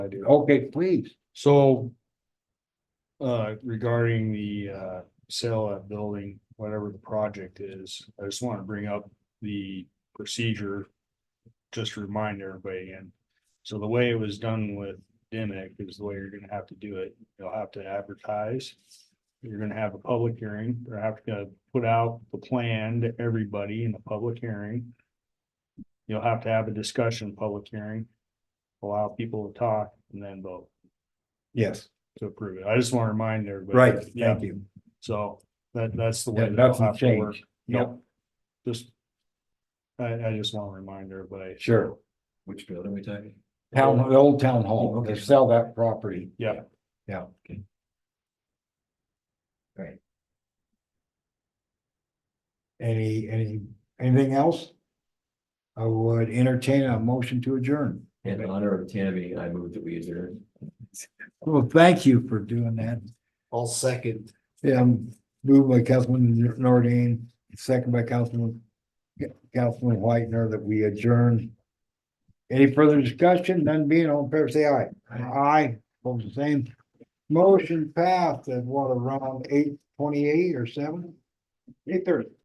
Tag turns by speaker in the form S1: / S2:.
S1: I do. Okay, please.
S2: So. Uh, regarding the uh sale of that building, whatever the project is, I just want to bring up the procedure. Just to remind everybody and so the way it was done with Dimick is the way you're gonna have to do it. You'll have to advertise. You're gonna have a public hearing. You're have to put out the plan to everybody in the public hearing. You'll have to have a discussion, public hearing, allow people to talk and then vote
S1: Yes,
S2: to approve it. I just want to remind everybody.
S1: right,
S2: that- Yeah,
S1: thank you.
S2: so that, that's the way.
S1: Yeah,
S2: that it'll
S1: nothing
S2: have to work.
S1: changed.
S2: Nope. Just. I, I just want to remind everybody.
S1: Sure.
S3: Which building we talking?
S1: Town, the old town hall, they
S3: Okay.
S1: sell that property.
S2: Yeah.
S1: Yeah.
S3: Right.
S1: Any, any, anything else? I would entertain a motion to adjourn.
S3: In honor of Tammy, I move that we adjourn.
S1: Well, thank you for doing that.
S3: All second.
S1: Yeah, moved by Councilman Nordine, second by Councilman, Councilman Whitener that we adjourn. Any further discussion? None being on favor, say aye. Aye, both the same. Motion passed at what, around eight twenty-eight or seven? Eight thirty.